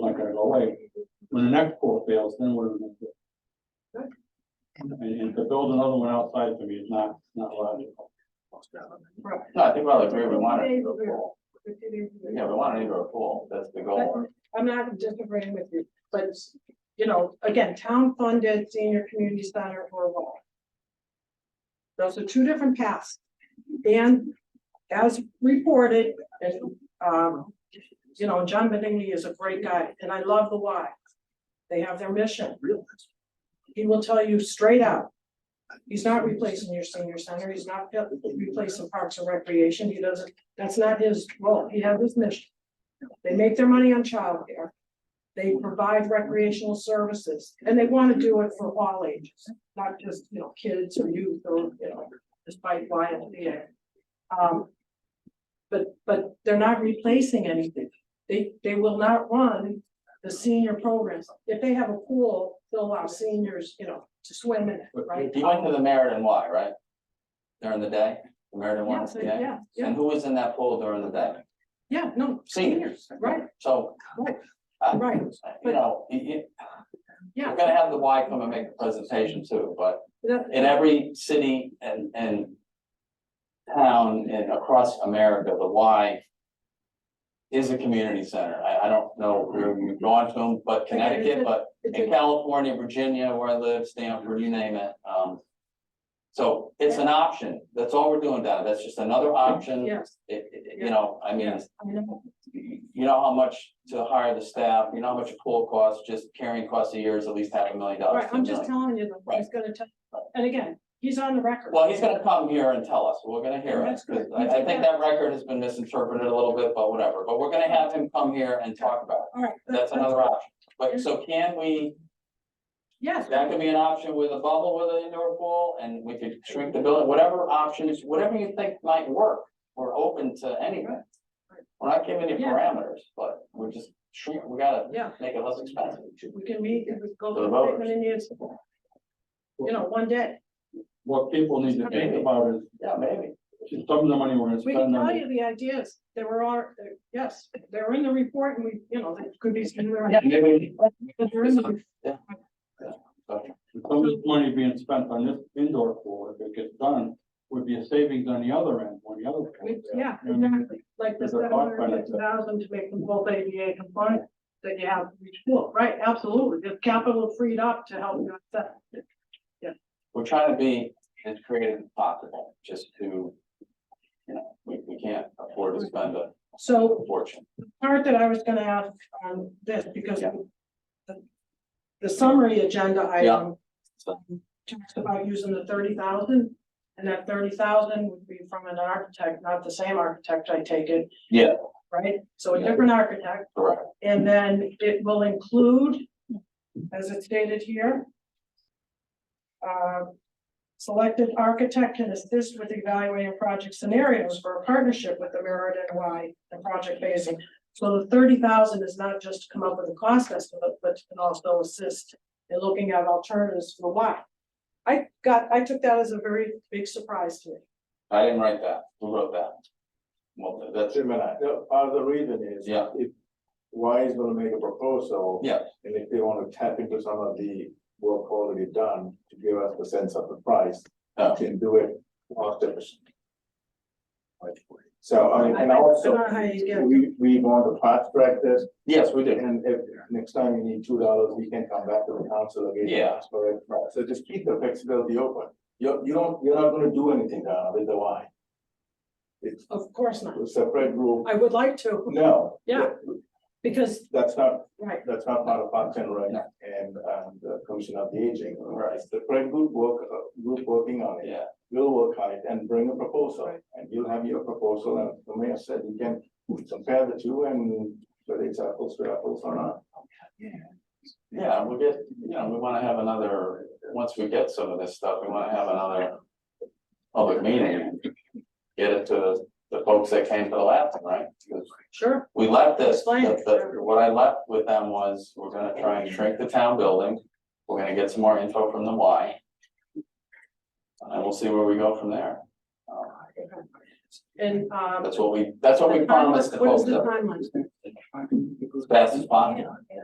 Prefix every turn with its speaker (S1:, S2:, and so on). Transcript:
S1: away. When the next pool fails, then what are we gonna do? And, and to build another one outside for me is not, not logical.
S2: Right.
S3: No, I think we're all agree, we want
S2: Fifty
S3: it
S2: days
S3: to
S2: of
S3: go
S2: it.
S3: full.
S2: Fifty days of it.
S3: Yeah, we want it to go full. That's the goal.
S2: I'm not disagreeing with you, but, it's, you know, again, town funded senior community center or law. Those are two different paths. And as reported, and, um, you know, John Benigni is a great guy, and I love the why. They have their mission. He will tell you straight out. He's not replacing your senior center, he's not replacing parks and recreation, he doesn't, that's not his role, he has his mission. They make their money on childcare. They provide recreational services and they want to do it for all ages, not just, you know, kids or youth or, you know, despite YMCA. Um. But, but they're not replacing anything. They, they will not run the senior programs. If they have a pool, they'll allow seniors, you know, to swim in it, right?
S3: You went to the Meriden Y, right? During the day, the Meriden Y,
S2: Yes,
S3: yeah?
S2: yeah, yeah,
S3: And who was in that pool during the day?
S2: yeah, no,
S3: Seniors.
S2: right,
S3: So.
S2: Right.
S3: uh,
S2: Right.
S3: You know, you, you,
S2: yeah.
S3: we're gonna have the Y come and make a presentation too, but
S2: that-
S3: in every city and, and town and across America, the Y is a community center. I, I don't know where we've gone to them, but Connecticut, but
S2: it's a-
S3: in California, Virginia, where I live, Stanford, you name it, um. So it's an option. That's all we're doing down. That's just another option. It,
S2: Yes,
S3: it, it- you know, I mean,
S2: yes, I know.
S3: you you know how much to hire the staff, you know how much a pool costs, just carrying costs a year is at least half a million dollars.
S2: Right,
S3: to a
S2: I'm just telling
S3: million.
S2: you, that he's gonna tell, and again, he's on the record.
S3: Well, he's gonna come here and tell us, we're gonna hear it,
S2: That's good.
S3: 'cause I, I think that record has been misinterpreted a little bit, but whatever, but we're gonna have him come here and talk about
S2: All right.
S3: it, that's another option. But, so can we,
S2: Yes,
S3: that could be an option with a bubble with an indoor pool, and we could shrink the building, whatever options, whatever you think might work, we're open to anything. We're not giving you
S2: Yeah.
S3: parameters, but we're just shrink, we gotta
S2: yeah,
S3: make it less expensive.
S2: we can meet, we can go
S3: The
S2: through
S3: voters.
S2: what it needs, you know, one day.
S1: What people need to think about is,
S3: Yeah, maybe,
S1: some of the money we're gonna
S2: We can
S1: spend on
S2: tell
S1: it.
S2: you the ideas, there were all, there- yes, they're in the report and we, you know, there could be. some there.
S3: Yeah, maybe.
S2: They're in the-
S3: so.
S1: some of this money being spent on this indoor pool, if it gets done, would be a savings on the other end, when the other. pool
S2: we-
S1: fails.
S2: Yeah,
S1: You know what I mean?
S2: exactly, like the
S1: There's a
S2: seven
S1: cost
S2: hundred
S1: benefit.
S2: fifty thousand to make them both ADA compliant, that you have, to reach full. right, absolutely, there's capital freed up to help you with that.
S3: we're trying to be as creative as possible, just to, you know, we, we can't afford to spend a
S2: So
S3: fortune.
S2: part that I was gonna ask on this, because
S3: Yeah.
S2: the- the summary agenda item um,
S3: So,
S2: talks about using the thirty thousand, and that thirty thousand would be from an architect, not the same architect, I take it.
S3: Yeah.
S2: Right, so a
S3: Yeah.
S2: different architect,
S3: correct,
S2: and then it will include, as it's stated here. um, Selected architect can assist with evaluating project scenarios for a partnership with the Meriden Y and project phasing. So the thirty thousand is not just to come up with a cost estimate, but to also assist in looking at alternatives for Y. I got, I took that as a very big surprise to me.
S3: I didn't write that, who wrote that? Well, that's,
S4: Wait a minute, no, part of the reason is.
S3: Yeah.
S4: If Y is gonna make a proposal.
S3: Yeah.
S4: And if they wanna tap into some of the work already done to give us the sense of the price,
S3: Yeah.
S4: we can do it cost efficient. So, I mean, and
S2: I
S4: also,
S2: don't know how you get-
S4: we, we want to fast track this,
S3: yes, we did,
S4: and if next time you need two dollars, we can come back to the council again. and
S3: Yeah.
S4: ask for it. So just keep the flexibility open. You, you don't, you're not gonna do anything uh, with the Y. It's
S2: Of course not.
S4: a separate group.
S2: I would like to,
S4: No.
S2: Yeah. because,
S4: That's not,
S2: right,
S4: that's not part of Parks and Rec
S3: No.
S4: and, um, the Commission of the Aging.
S3: Right.
S4: It's The Fred group work, uh, group working on it,
S3: yeah,
S4: will work on it and bring a proposal. And you'll have your proposal and the mayor said you can compare the two and whether it's apples to apples or not.
S3: yeah, we'll get, you know, we wanna have another, once we get some of this stuff, we wanna have another public meeting. Get it to the folks that came to the last, one, right? 'Cause
S2: sure.
S3: we left this,
S2: Explain
S3: the-
S2: it.
S3: the- what I left with them was, we're gonna try and shrink the town building. We're gonna get some more info from the Y. And we'll see where we go from there. Um,
S2: And, um.
S3: That's what we, that's what we
S2: the timeline-
S3: promised the
S2: What
S3: folks,
S2: is the
S3: that-
S2: timeline?
S3: as fast as possible.